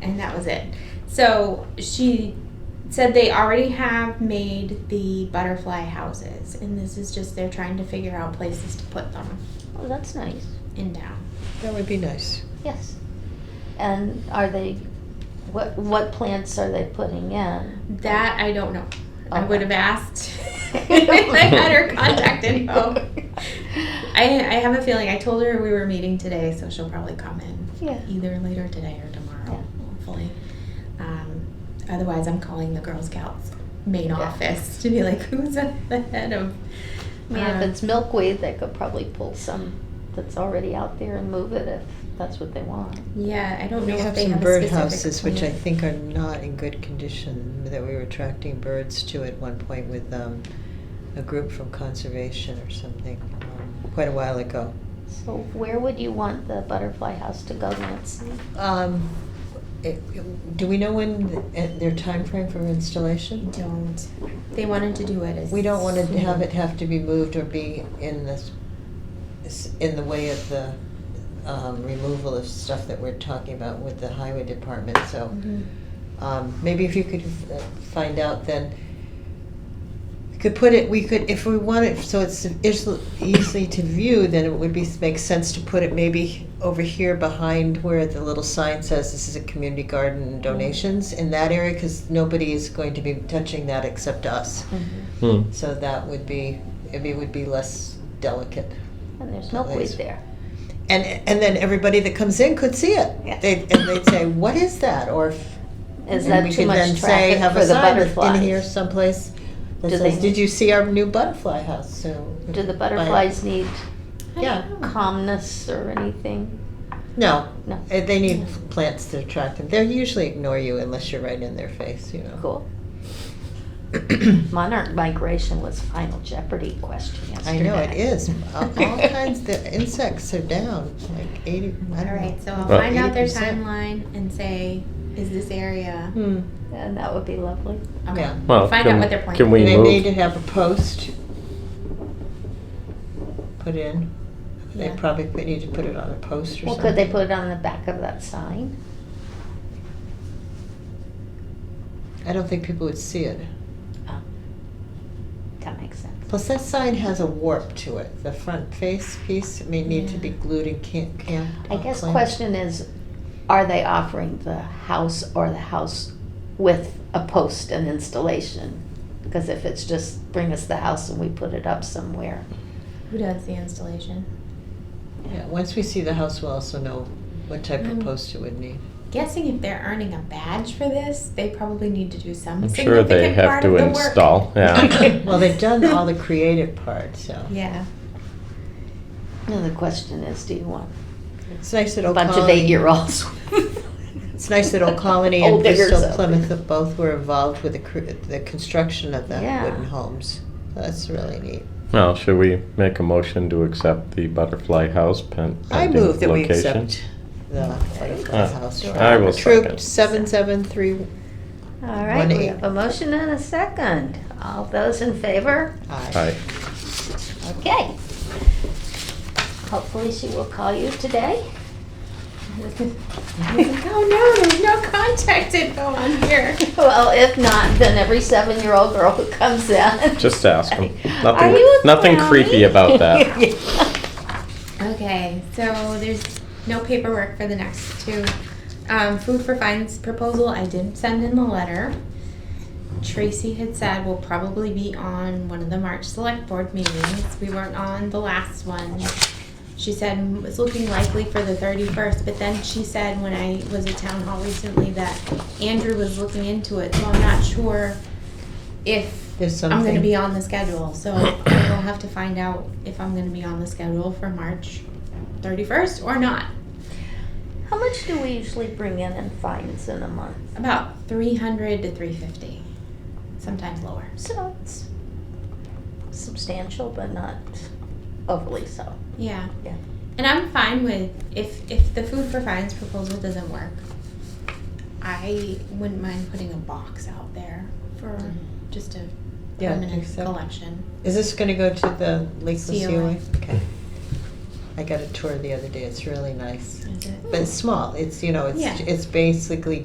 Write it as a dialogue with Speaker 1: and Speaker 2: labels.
Speaker 1: and that was it. So she said they already have made the butterfly houses, and this is just they're trying to figure out places to put them
Speaker 2: Oh, that's nice.
Speaker 1: in town.
Speaker 3: That would be nice.
Speaker 2: Yes. And are they, what, what plants are they putting in?
Speaker 1: That I don't know. I
Speaker 2: Okay.
Speaker 1: would have asked if I had her contact info. I, I have a feeling I told her we were meeting today, so she'll probably come in
Speaker 2: Yeah.
Speaker 1: either later today or tomorrow, hopefully. Um, otherwise, I'm calling the Girl Scouts main
Speaker 2: Yeah.
Speaker 1: office to be like, who's at the head of?
Speaker 2: I mean, if
Speaker 1: Um,
Speaker 2: it's milkweed, they could probably pull some that's already out there and move it if that's what they want.
Speaker 1: yeah, I don't
Speaker 3: We
Speaker 1: know if
Speaker 3: have
Speaker 1: they
Speaker 3: some
Speaker 1: have a specific
Speaker 3: birdhouses, which I
Speaker 1: plan.
Speaker 3: think are not in good condition, that we were attracting birds to at one point with um, a group from conservation or something, um, quite a while ago.
Speaker 2: So where would you want the butterfly house to go, Nancy?
Speaker 3: Um, it- Do we know when, the- eh, their time frame for installation?
Speaker 1: don't. They wanted to do it as
Speaker 3: We don't want to have it have to be moved or be in this, s- in the way of the um, removal of stuff that we're talking about with the highway department, so
Speaker 1: Mhm.
Speaker 3: um, maybe if you could uh, find out then, we could put it, we could, if we want it, so it's easily- easily to view, then it would be, make sense to put it maybe over here behind where the little sign says this is a community garden and donations, in that area, because nobody is going to be touching that except us.
Speaker 1: Mm-hmm.
Speaker 4: Hmm.
Speaker 3: So that would be, it would be less delicate.
Speaker 2: And there's milkweed
Speaker 3: Nice.
Speaker 2: there.
Speaker 3: And, and then everybody that comes in could see it.
Speaker 2: Yeah.
Speaker 3: They'd, and they'd say, what is that? Or if-
Speaker 2: Is
Speaker 3: and
Speaker 2: that
Speaker 3: we
Speaker 2: too
Speaker 3: could then
Speaker 2: much
Speaker 3: say,
Speaker 2: traffic
Speaker 3: have
Speaker 2: for the
Speaker 3: a sign that's in here
Speaker 2: butterflies?
Speaker 3: someplace that
Speaker 2: Do
Speaker 3: says,
Speaker 2: they-
Speaker 3: did you see our new butterfly house? So.
Speaker 2: Do the butterflies need
Speaker 1: I
Speaker 3: Yeah.
Speaker 1: don't know.
Speaker 2: calmness or anything?
Speaker 3: No,
Speaker 2: No.
Speaker 3: Uh, they need plants to attract them. They usually ignore you unless you're right in their face, you know.
Speaker 2: Cool. Monarch migration was final Jeopardy question yesterday.
Speaker 3: I know, it is. All all kinds, the insects are down, like eighty, I
Speaker 1: All
Speaker 3: don't know.
Speaker 1: right, so I'll
Speaker 4: Well-
Speaker 1: find out their
Speaker 3: 80%.
Speaker 1: timeline and say, is this area?
Speaker 3: Hmm.
Speaker 2: And that would be lovely.
Speaker 1: Okay.
Speaker 3: Mm. Yeah.
Speaker 4: Well,
Speaker 1: find
Speaker 4: can-
Speaker 1: out what their plan.
Speaker 4: can we-
Speaker 3: They
Speaker 4: moved.
Speaker 3: need to have a post put in. They
Speaker 1: Yeah.
Speaker 3: probably put- need to put it on a post or
Speaker 2: Well,
Speaker 3: something.
Speaker 2: could they put it on the back of that sign?
Speaker 3: I don't think people would see it.
Speaker 2: Oh, That makes sense.
Speaker 3: Plus, that sign has a warp to it. The front face piece may need to be
Speaker 1: Yeah.
Speaker 3: glued and uh, can't, can't.
Speaker 2: I guess question is, are they offering the house or the house with a post and installation? Because if it's just bring us the house and we put it up somewhere,
Speaker 1: Who does the installation?
Speaker 3: Yeah, once we see the house, we'll also know what type of
Speaker 1: Mm.
Speaker 3: post it would need.
Speaker 1: Guessing if they're earning a badge for this, they probably need to do some
Speaker 4: I'm sure
Speaker 1: significant
Speaker 4: they have
Speaker 1: part of
Speaker 4: to
Speaker 1: the
Speaker 4: install.
Speaker 1: work.
Speaker 4: Yeah.
Speaker 3: Well, they've done all the creative part, so.
Speaker 1: Yeah.
Speaker 2: then the question is, do you want
Speaker 3: It's nice
Speaker 2: a
Speaker 3: that Old
Speaker 2: bunch of
Speaker 3: Colony-
Speaker 2: eight-year-olds?
Speaker 3: It's nice that Old Colony and
Speaker 2: Old diggers
Speaker 3: Bristol
Speaker 2: up.
Speaker 3: Plymouth both were involved with the, cr- the construction of the
Speaker 2: Yeah.
Speaker 3: wooden homes. That's really neat.
Speaker 4: Well, should we make a motion to accept the butterfly house pen?
Speaker 3: I
Speaker 4: pending
Speaker 3: move that we
Speaker 4: location?
Speaker 3: accept the butterfly
Speaker 4: Uh,
Speaker 3: house.
Speaker 4: I will
Speaker 3: Troop
Speaker 4: second.
Speaker 3: seven seven three.
Speaker 2: All right, we
Speaker 3: One
Speaker 2: have a motion and a second. All those in favor?
Speaker 4: Aye.
Speaker 2: Okay. Hopefully she will call you today.
Speaker 1: I was like, oh no, there's no contact info on here.
Speaker 2: Well, if not, then every seven-year-old girl who comes in.
Speaker 4: Just ask 'em. Nothing-
Speaker 2: Are you a
Speaker 4: nothing
Speaker 2: clowny?"
Speaker 4: creepy about that.
Speaker 1: Okay, so there's no paperwork for the next two. Um, food for fines proposal, I did send in the letter. Tracy had said will probably be on one of the March select board meetings. We weren't on the last one. She said mm, it's looking likely for the thirty-first, but then she said when I was at town hall recently that Andrew was looking into it, so I'm not sure if
Speaker 3: There's
Speaker 1: I'm gonna
Speaker 3: something.
Speaker 1: be on the schedule, so I'll have to find out if I'm gonna be on the schedule for March thirty-first or not.
Speaker 2: How much do we usually bring in in fines in a month?
Speaker 1: About three hundred to three fifty, sometimes lower.
Speaker 2: So it's substantial, but not overly so.
Speaker 1: Yeah.
Speaker 2: Yeah.
Speaker 1: And I'm fine with if if the food for fines proposal doesn't work, I wouldn't mind putting a box out there for just a
Speaker 3: Yeah, I
Speaker 1: permanent
Speaker 3: think so.
Speaker 1: collection.
Speaker 3: Is this going to go to the Lake
Speaker 1: COA.
Speaker 3: Sealy? Okay. I got a tour the other day. It's really nice,
Speaker 1: Is it?
Speaker 3: but it's small. It's you know, it's
Speaker 1: Yeah.
Speaker 3: it's basically